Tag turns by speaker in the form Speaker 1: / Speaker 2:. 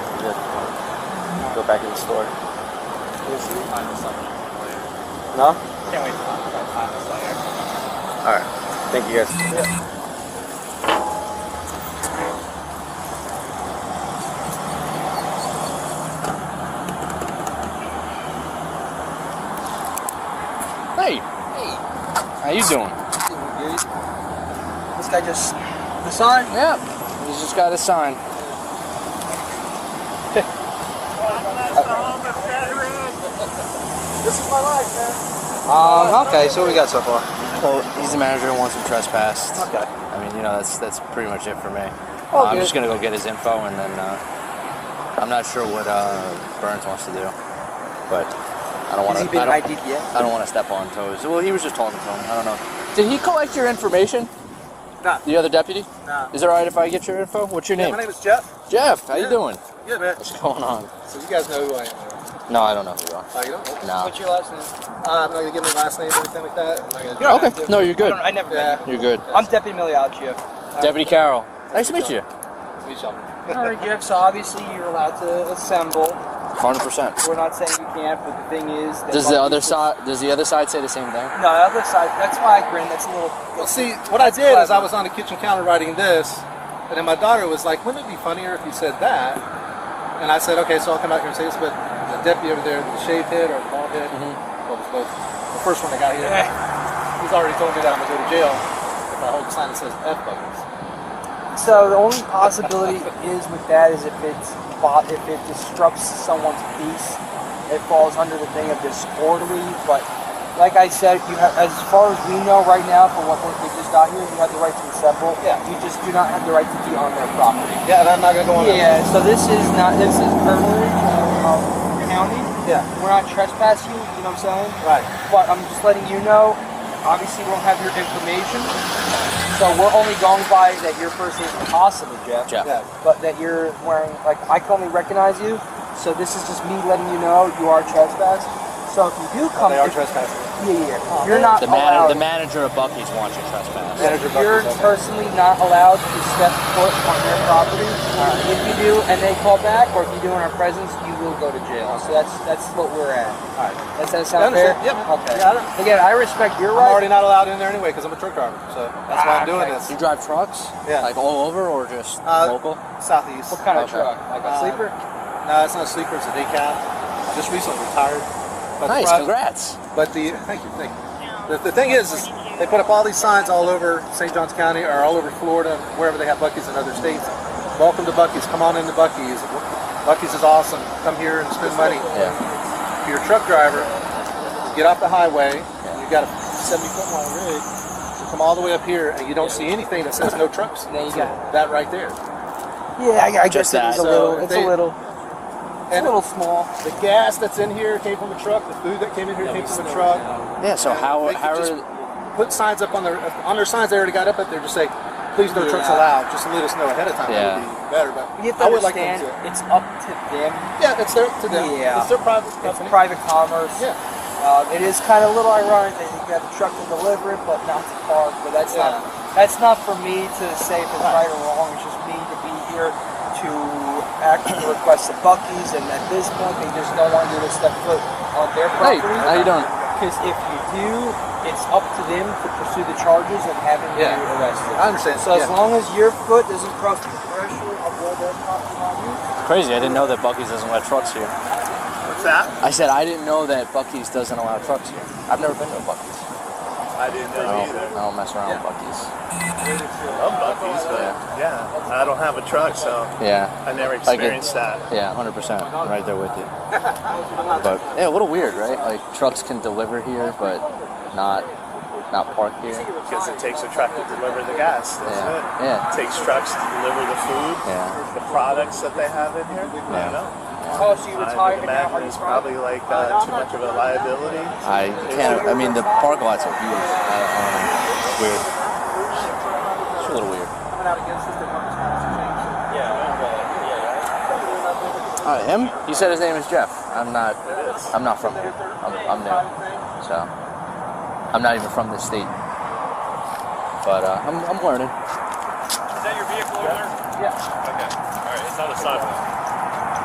Speaker 1: back in the store.
Speaker 2: We'll see. Final Slayer.
Speaker 1: No?
Speaker 2: Can't wait to talk about Final Slayer.
Speaker 1: Alright. Thank you guys.
Speaker 3: Hey. How you doing?
Speaker 1: This guy just the sign?
Speaker 3: Yeah. He's just got a sign.
Speaker 1: This is my life, man. Um, okay, so what we got so far?
Speaker 3: Well, he's the manager who wants him trespassed.
Speaker 1: Okay.
Speaker 3: I mean, you know, that's that's pretty much it for me.
Speaker 1: All
Speaker 3: I'm
Speaker 1: good.
Speaker 3: just gonna go get his info, and then uh, I'm not sure what uh, Burns wants to do, but I don't want
Speaker 1: Has
Speaker 3: to.
Speaker 1: he been
Speaker 3: I don't,
Speaker 1: ID'd yet?
Speaker 3: I don't want to step on toes. Well, he was just talking to him. I don't know. Did he collect your information?
Speaker 1: Nah.
Speaker 3: The other deputy?
Speaker 1: Nah.
Speaker 3: Is it alright if I get your info? What's your name?
Speaker 1: my name is Jeff.
Speaker 3: Jeff. How
Speaker 1: Yeah.
Speaker 3: you doing?
Speaker 1: Yeah, man.
Speaker 3: What's going on?
Speaker 1: So you guys know who I am. right?
Speaker 3: No, I don't know who you are.
Speaker 1: Oh, you don't?
Speaker 3: No.
Speaker 1: What's your last name? Uh, I'm not gonna give my last name or anything like that. I'm not gonna do
Speaker 3: Yeah, okay.
Speaker 1: that.
Speaker 3: No, you're good.
Speaker 2: I never met
Speaker 1: Yeah.
Speaker 3: You're good.
Speaker 2: I'm Deputy Miliaccio.
Speaker 3: Deputy Carroll. Nice to meet you.
Speaker 1: We shall-
Speaker 2: All right, Jeff, so obviously you're allowed to assemble.
Speaker 3: 100%.
Speaker 2: We're not saying you can't, but the thing is... that
Speaker 3: Does the
Speaker 2: all
Speaker 3: other
Speaker 2: these-
Speaker 3: side does the other side say the same thing?
Speaker 2: No, the other side, that's why I grin, that's a little...
Speaker 1: Well, see, what I did is I was on the kitchen counter writing this, and then my daughter was like, wouldn't it be funnier if you said that? And I said, okay, so I'll come out here and say this, but the deputy over there, with the shaved head or the bald head,
Speaker 2: Mm-hmm.
Speaker 1: well, it was both. The first one that got here, he's already told me that I'm going to go to jail if I hold a sign that says F buggers.
Speaker 2: So the only possibility is with that is if it's bo- if it disrupts someone's peace, it falls under the thing of disorderly. But like I said, you have, as far as we know right now, from what we just got here, you have the right to assemble.
Speaker 1: Yeah.
Speaker 2: You just do not have the right to be on their property.
Speaker 1: Yeah, and I'm not going to go on that.
Speaker 2: Yeah. So this is not this is burglary of county.
Speaker 1: Yeah.
Speaker 2: We're not trespassing. You know what I'm saying?
Speaker 1: Right.
Speaker 2: But I'm just letting you know, obviously we don't have your information. So we're only going by that your first name is possibly Jeff.
Speaker 3: Jeff.
Speaker 1: Yeah.
Speaker 2: But that you're wearing, like, I can only recognize you. So this is just me letting you know you are trespassed. So if you do come,
Speaker 1: They are
Speaker 2: if-
Speaker 1: trespassing.
Speaker 2: yeah, yeah, yeah. You're not
Speaker 1: Uh,
Speaker 3: The,
Speaker 2: allowed.
Speaker 1: oh.
Speaker 3: man- the manager of Bucky's wants you trespass.
Speaker 1: Manager
Speaker 2: You're
Speaker 1: Buckley's okay.
Speaker 2: personally not allowed to step foot on their property. Uh, If you do, and they call back, or if you do in our presence, you will go to jail. So that's that's what we're at.
Speaker 1: All right.
Speaker 2: Does that
Speaker 1: I
Speaker 2: sound fair?
Speaker 1: understand. Yeah, man.
Speaker 2: Okay.
Speaker 1: Yeah, I don't-
Speaker 2: Again, I respect your
Speaker 1: I'm already
Speaker 2: right.
Speaker 1: not allowed in there anyway because I'm a truck driver, so that's why I'm doing
Speaker 2: Ah, okay.
Speaker 1: this.
Speaker 3: You drive trucks?
Speaker 1: Yeah.
Speaker 3: Like all over or just
Speaker 1: Uh,
Speaker 3: local?
Speaker 1: Southeast.
Speaker 2: What kind of
Speaker 3: Okay.
Speaker 2: truck? Like a
Speaker 1: Uh,
Speaker 2: sleeper?
Speaker 1: No, it's not a sleeper. It's a decaf. I just recently retired. But the
Speaker 3: Nice,
Speaker 1: pro-
Speaker 3: congrats.
Speaker 1: But the thank you, thank you. The, the thing is, is they put up all these signs all over St. Johns County or all over Florida, wherever they have Bucky's in other states. Welcome to Bucky's. Come on into Bucky's. Bucky's is awesome. Come here and spend money.
Speaker 3: Yeah.
Speaker 1: If you're a truck driver, get off the highway. You've got a 70 foot long rig. So come all the way up here, and you don't see anything that says no trucks.
Speaker 2: There you go.
Speaker 1: That right there.
Speaker 2: Yeah, I, I
Speaker 3: Just
Speaker 2: guess it is a
Speaker 3: that.
Speaker 1: So
Speaker 2: little.
Speaker 1: if
Speaker 2: It's
Speaker 1: they-
Speaker 2: a little. It's a
Speaker 1: And
Speaker 2: little small.
Speaker 1: the gas that's in here came from a truck. The food that came in here came from a truck.
Speaker 3: Yeah, so how,
Speaker 1: They could
Speaker 3: how
Speaker 1: just
Speaker 3: are,
Speaker 1: put signs up on their on their signs they already got up up there just say please no trucks allowed just to let us know ahead of time that
Speaker 3: Yeah.
Speaker 1: would be better but
Speaker 2: You have to
Speaker 1: I would like them
Speaker 2: understand,
Speaker 1: to
Speaker 2: it's up to them.
Speaker 1: yeah that's their to them
Speaker 2: Yeah.
Speaker 1: it's their private
Speaker 2: It's
Speaker 1: company
Speaker 2: private commerce.
Speaker 1: yeah
Speaker 2: Um, it is kind of a little ironic that you got the truck to deliver it, but not to park. But that's
Speaker 1: Yeah.
Speaker 2: not that's not for me to say if it's right or wrong. It's just me to be here to act at the request of Bucky's, and at this point, they just don't want you to step foot on their
Speaker 3: hey,
Speaker 2: property.
Speaker 3: how you doing?
Speaker 2: Because if you do, it's up to them to pursue the charges of having
Speaker 1: Yeah.
Speaker 2: you arrested.
Speaker 1: I understand
Speaker 2: So as
Speaker 1: yeah.
Speaker 2: long as your foot doesn't cross the threshold of where their property on you,
Speaker 3: Crazy, I didn't know that Bucky's doesn't let trucks here.
Speaker 4: What's that?
Speaker 3: I said I didn't know that Bucky's doesn't allow trucks here. I've never been to a Bucky's.
Speaker 4: I didn't know
Speaker 3: I don't,
Speaker 4: either.
Speaker 3: I don't mess around with Bucky's.
Speaker 4: I'm Bucky's, but yeah, I don't have a truck, so
Speaker 3: Yeah.
Speaker 4: I never
Speaker 3: Like it-
Speaker 4: experienced that.
Speaker 3: Yeah, 100%. I'm right there with you. But yeah, a little weird, right? Like trucks can deliver here, but not not park here.
Speaker 4: Because it takes a truck to deliver the gas. That's
Speaker 3: Yeah.
Speaker 4: it.
Speaker 3: Yeah.
Speaker 4: It takes tructs to deliver the food,
Speaker 3: Yeah.
Speaker 4: the products that they have in here. I
Speaker 3: Yeah.
Speaker 4: don't know.
Speaker 2: oh, so you
Speaker 4: I
Speaker 2: retired
Speaker 4: would
Speaker 2: and now are
Speaker 4: imagine
Speaker 2: you
Speaker 4: it's
Speaker 2: from?
Speaker 4: probably like uh, too much of a liability.
Speaker 3: I can't. I mean, the park lots are huge. I, I don't know. It's weird. It's a little weird.
Speaker 2: Coming out against this, the numbers have changed.
Speaker 3: Uh, him? You said his name is Jeff. I'm not. I'm not from here. I'm, I'm new, so I'm not even from this state. But uh, I'm, I'm learning.
Speaker 5: Is that your vehicle over there?
Speaker 2: Yeah.
Speaker 5: Okay. All right. It's not a sidewalk.